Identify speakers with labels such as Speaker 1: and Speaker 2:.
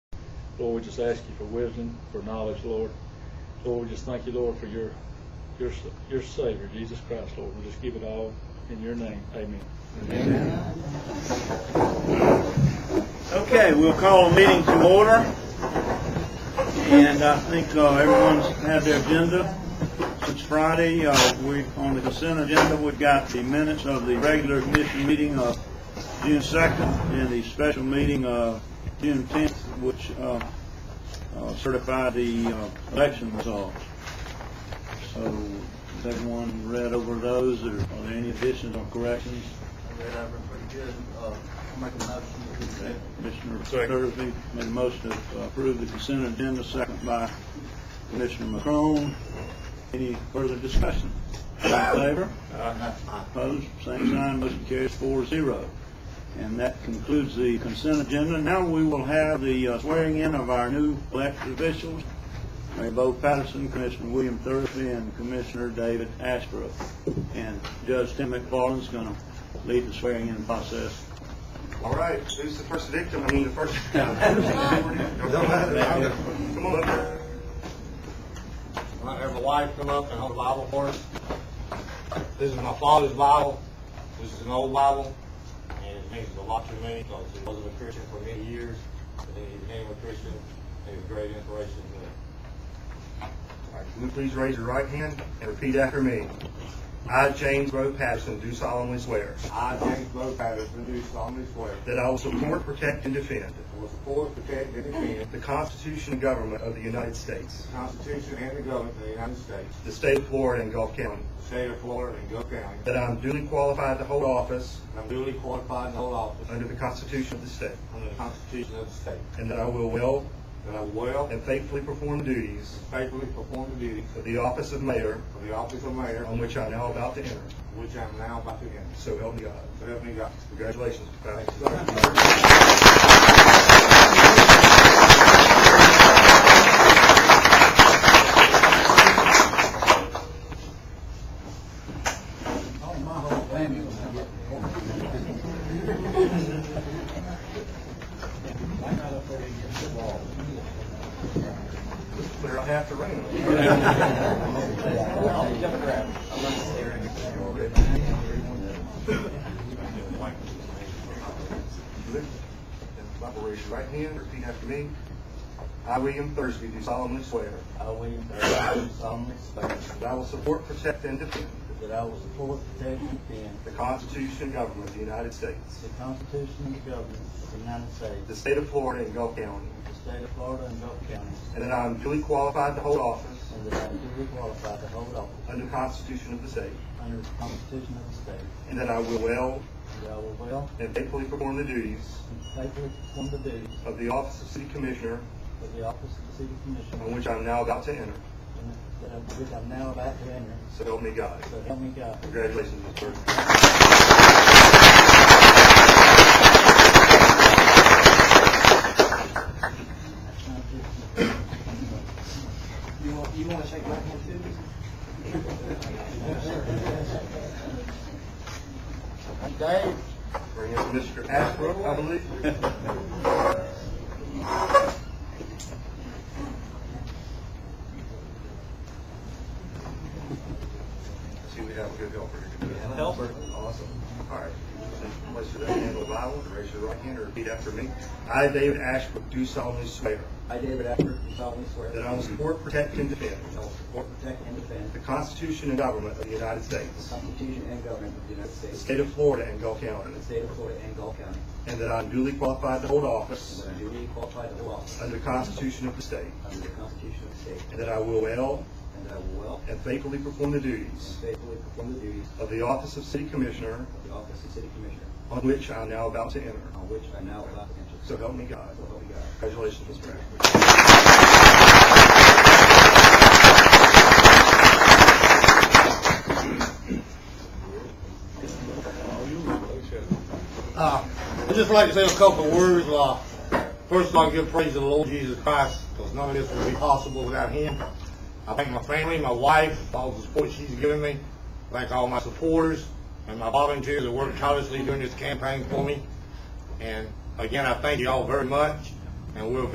Speaker 1: Lord, we just ask you for wisdom, for knowledge, Lord. Lord, we just thank you, Lord, for your your your Savior, Jesus Christ, Lord. We just give it all in your name. Amen.
Speaker 2: Okay, we'll call the meeting to order. And I think uh, everyone's had their agenda. Since Friday, uh, we, on the consent agenda, we've got the minutes of the regular commission meeting of June 2nd and the special meeting of June 10th, which uh, uh, certify the uh, election results. So, has everyone read over those, or are there any additions or corrections?
Speaker 3: Read over pretty good. Uh, I'll make a motion.
Speaker 2: Commissioner Thursby made a motion to approve the consent agenda, second by Commissioner McCrone. Any further discussion? All in favor? Opposed? Same sign, motion carries four zero. And that concludes the consent agenda. Now we will have the uh, swearing in of our new elected officials, Mayor Bo Patterson, Commissioner William Thursby, and Commissioner David Ashbrook. And Judge Tim McFarland's going to lead the swearing in process.
Speaker 4: All right, who's the first victim? I mean, the first. Come on up here.
Speaker 3: I have my wife come up and hold a Bible for us. This is my father's Bible. This is an old Bible, and it means a lot to me because he wasn't a Christian for many years, but then he became a Christian. He was a great inspiration to
Speaker 4: All
Speaker 3: me.
Speaker 4: right, Can you please raise your right hand and repeat after me? I, James Rowe Patterson, do solemnly swear
Speaker 3: I, James Bo Patterson, do solemnly swear
Speaker 4: that I will support, protect, and defend
Speaker 3: I will support, protect, and defend
Speaker 4: the Constitution and government of the United States,
Speaker 3: the Constitution and the government of the United States,
Speaker 4: the state of Florida and Gulf County,
Speaker 3: the state of Florida, and Gulf County.
Speaker 4: that I am duly qualified to hold office
Speaker 3: I'm duly qualified to hold office
Speaker 4: under the Constitution of the state,
Speaker 3: under the Constitution of the state.
Speaker 4: and that I will well
Speaker 3: That I will well
Speaker 4: and faithfully perform the duties
Speaker 3: faithfully perform the duties
Speaker 4: of the office of mayor
Speaker 3: of the office of mayor,
Speaker 4: on which I am now about to enter.
Speaker 3: which I am now about to enter.
Speaker 4: So help me God.
Speaker 3: So help me God.
Speaker 4: Congratulations, Mr. Patterson. Clear out half the room. Bible, raise your right hand, repeat after me. I, William Thursby, do solemnly swear
Speaker 3: I, William Thurston, do solemnly swear
Speaker 4: that I will support, protect, and defend
Speaker 3: that I will support, protect, and defend
Speaker 4: the Constitution and government of the United States,
Speaker 3: the Constitution and the government of the United States,
Speaker 4: the state of Florida and Gulf County,
Speaker 3: the state of Florida, and Gulf County,
Speaker 4: and that I am duly qualified to hold office
Speaker 3: and that I am duly qualified to hold office
Speaker 4: under the Constitution of the state,
Speaker 3: under the Constitution of the state,
Speaker 4: and that I will well
Speaker 3: and that I will well
Speaker 4: and faithfully perform the duties
Speaker 3: and faithfully perform the duties
Speaker 4: of the office of city commissioner
Speaker 3: of the office of the city commissioner,
Speaker 4: on which I am now about to enter.
Speaker 3: and that I- which I'm now about to enter.
Speaker 4: So help me God.
Speaker 3: So help me God.
Speaker 4: Congratulations, Mr. Thursby.
Speaker 3: You want, you want to shake my hand too? Dave?
Speaker 4: Bring in Mr. Ashbrook, I believe. See, we have a good helper here.
Speaker 3: Helper.
Speaker 4: Awesome. All right. So Place your left hand on the Bible, and raise your right hand, and repeat after me. I, David Ashbrook, do solemnly swear
Speaker 3: I, David Ashford, do solemnly swear.
Speaker 4: that I will support, protect, and defend
Speaker 3: I will support, protect, and defend
Speaker 4: the Constitution and government of the United
Speaker 3: the
Speaker 4: States,
Speaker 3: Constitution and government of the United
Speaker 4: the
Speaker 3: States,
Speaker 4: state of Florida and Gulf County,
Speaker 3: the state of Florida, and Gulf County,
Speaker 4: and that I am duly qualified to hold
Speaker 3: and
Speaker 4: office
Speaker 3: that I am duly qualified to hold office
Speaker 4: under the Constitution of the state,
Speaker 3: under the Constitution of the state,
Speaker 4: and that I will well
Speaker 3: and that I will well
Speaker 4: and faithfully perform the
Speaker 3: and
Speaker 4: duties
Speaker 3: faithfully perform the duties
Speaker 4: of the office of city commissioner
Speaker 3: of the office of city commissioner,
Speaker 4: on which I am now about to enter.
Speaker 3: on which I now about to enter.
Speaker 4: So help me God.
Speaker 3: So help me God.
Speaker 4: Congratulations, Mr. Ashbrook.
Speaker 3: Uh, I'd just like to say a couple of words. Uh, first, I'd like to give praise to the Lord Jesus Christ because none of this would be possible without Him. I thank my family, my wife, for all the support she's given me. I thank all my supporters and my volunteers that worked tirelessly during this campaign for me. And again, I thank you all very much, and we're